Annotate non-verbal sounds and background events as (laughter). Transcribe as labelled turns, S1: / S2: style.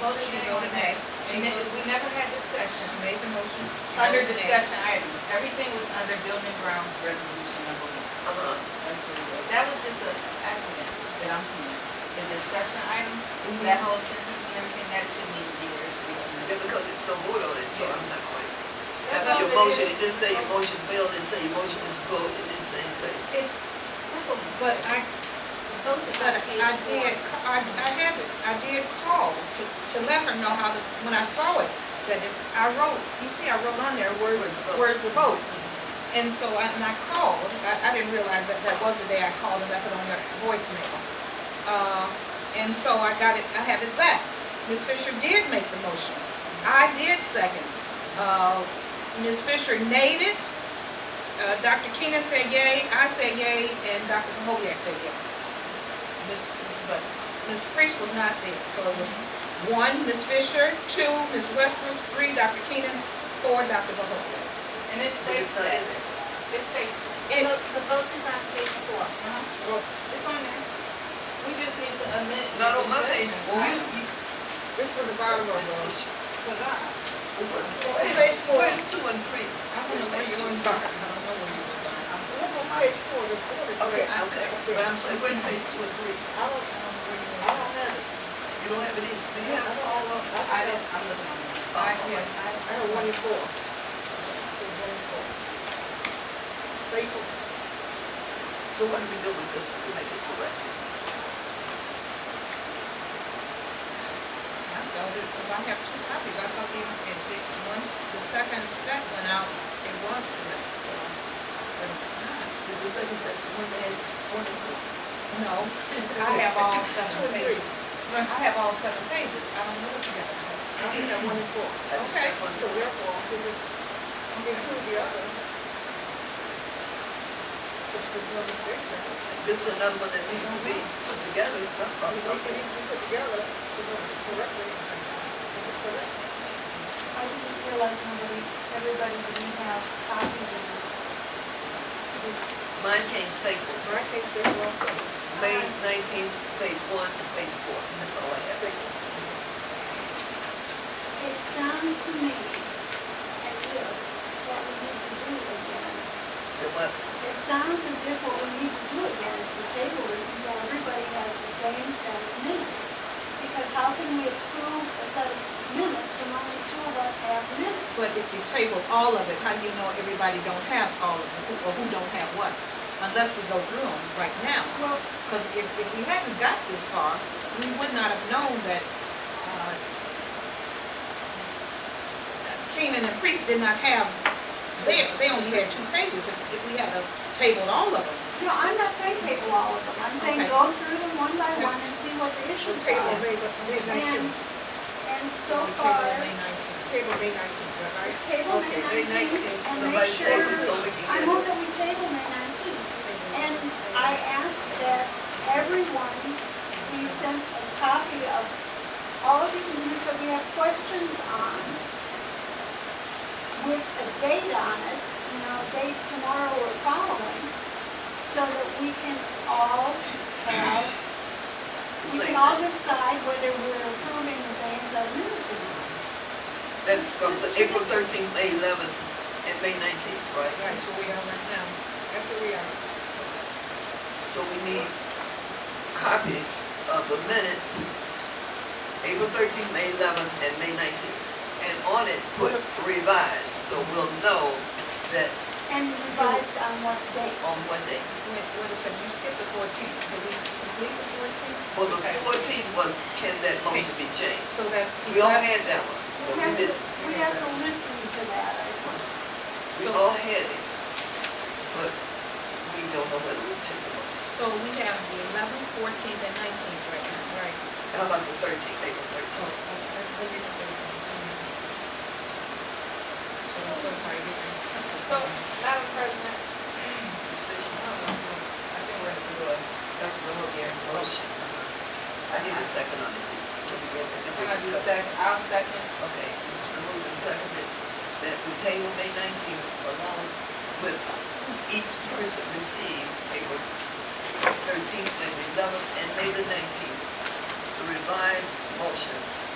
S1: voted to go today.
S2: She ne- we never had discussion.
S1: She made the motion.
S2: Under discussion items, everything was under building grounds resolution number one.
S3: Uh-huh.
S2: That's what it was. That was just an accident that I'm seeing. The discussion items, that whole sentence and everything, that shouldn't even be there, it should be on
S3: Then
S2: this.
S3: because it's no vote on it, so I'm not quite.
S2: That's
S3: After
S2: all
S3: your
S2: it
S3: motion,
S2: is.
S3: it didn't say your motion failed, it didn't say your motion was approved, it didn't say anything.
S2: Simple.
S4: But I, but I did, ca- I, I have it, I did call to, to let her know how this, when I saw it, that it, I wrote, you see, I wrote on there, where's,
S3: Where's the vote?
S4: where's the vote? And so I, and I called, I, I didn't realize that that was the day I called and left it on your voicemail. Uh, and so I got it, I have it back. Ms. Fisher did make the motion. I did second. Uh, Ms. Fisher made it. Uh, Dr. Keenan said yay, I said yay, and Dr. Mahovia said yay. Ms., but Ms. Priest was not there, so it was one, Ms. Fisher, two, Ms. Westbrook's, three, Dr. Keenan, four, Dr. Mahovia.
S2: And it
S3: But
S2: states
S3: it's not in
S2: that,
S3: there.
S2: it states,
S4: It,
S1: the vote is on page four.
S2: uh-huh, it's on there. We just need to amend the
S3: Not on my page.
S2: discussion item.
S4: it's from the bottom of
S3: Ms.
S4: the.
S3: Fisher.
S2: Cause I,
S3: Where's page- Where's two and three?
S4: I don't know where yours are. I don't know where yours are. I'm-
S5: Look on page four, the board is.
S3: Okay,
S5: I-
S3: okay, but I'm saying, where's page two and three?
S5: I don't, I don't have it.
S3: You don't have it either, do you
S5: I
S3: have?
S5: don't all of,
S2: I didn't, I'm looking on there.
S3: Oh,
S2: I,
S3: oh,
S2: yes, I,
S5: I have one and four. Okay, one and four. Staple.
S3: So what do we do with this to make it correct?
S4: I doubt it, because I have two copies, I thought even, it, it, once the second set went out, it was correct, so, but if it's not.
S3: Is the second set, the one that has one and four?
S4: No, (laughs) I have all seven
S5: Two and three.
S4: pages. I have all seven pages, I don't know what you guys have.
S5: I only have one and four.
S3: I just
S4: Okay.
S3: have one.
S5: So therefore, if it's, include the other. If there's no mistakes in it.
S3: This is another one that needs to be put together, some, or
S5: If it
S3: something.
S5: needs to be put together, to go correctly, if it's correct.
S6: I didn't realize nobody, everybody didn't have copies of this. This,
S3: Mine came stapled.
S5: But I think there's also
S3: It was May nineteenth, page one to page four, that's all I have.
S5: staple.
S6: it sounds to me as if what we need to do again,
S3: The what,
S6: it sounds as if what we need to do again is to table this until everybody has the same set of minutes. Because how can we approve a set of minutes when only two of us have minutes?
S4: But if you table all of it, how do you know everybody don't have all of it, who- or who don't have what? Unless we go through them right now,
S6: Well,
S4: because if, if we hadn't got this far, we would not have known that, uh, Keenan and Priest did not have, they, they only had two pages, if, if we had a tabled all of them.
S6: no, I'm not saying table all of them, I'm saying
S4: Okay.
S6: go through them one by one
S4: That's-
S6: and see what the
S5: Should
S6: issues
S5: table
S6: are.
S5: May, May
S6: And,
S5: nineteenth,
S6: and so
S4: We tabled
S6: far.
S4: May 19th.
S5: table May nineteenth, right?
S6: Table May
S3: Okay, May
S6: 19th, and make
S3: somebody
S6: sure,
S3: table so we can
S6: I
S3: get
S6: move
S3: it.
S6: that we table May 19th. And I ask that everyone be sent a copy of all of these minutes that we have questions on with a date on it, you know, a date tomorrow or following, so that we can all have, we can all decide whether we're approving the same set of minutes or not.
S3: That's from
S6: This is
S3: April
S6: ridiculous.
S3: thirteenth, May eleventh, and May nineteenth, right?
S4: Right, so we are right now.
S5: That's where we are.
S3: So we need copies of the minutes, April thirteenth, May eleventh, and May nineteenth. And on it, put revised, so we'll know that
S6: And revised on what date?
S3: on one day.
S4: Wait, wait a second, you skipped the fourteenth, did we complete the fourteenth?
S3: Well, Oh, the fourteenth was, can that motion be changed?
S4: So that's
S3: We all
S4: eleven,
S3: had that one,
S6: We
S3: but
S6: have
S3: we
S6: to,
S3: didn't.
S6: we have to listen to that, I think.
S3: We
S4: So-
S3: all had it, but we don't know whether we took the motion.
S4: so we have the eleventh, fourteenth, and nineteenth right now.
S5: Right.
S3: How about the thirteenth, April
S4: So,
S3: thirteenth?
S4: okay, we did the 13th. So, so far, you
S2: so, Madam President,
S3: Ms. Fisher?
S2: I don't know, Oh, I think we're gonna do a, Dr. Mahovia motion.
S3: Oh, I need a second on it. Can we get, can we
S2: Can I do
S3: discuss?
S2: second, I'll second.
S3: Okay, it's been moved and seconded that we table May nineteenth along with each person received April thirteenth, May the eleventh, and May the nineteenth, the revised motions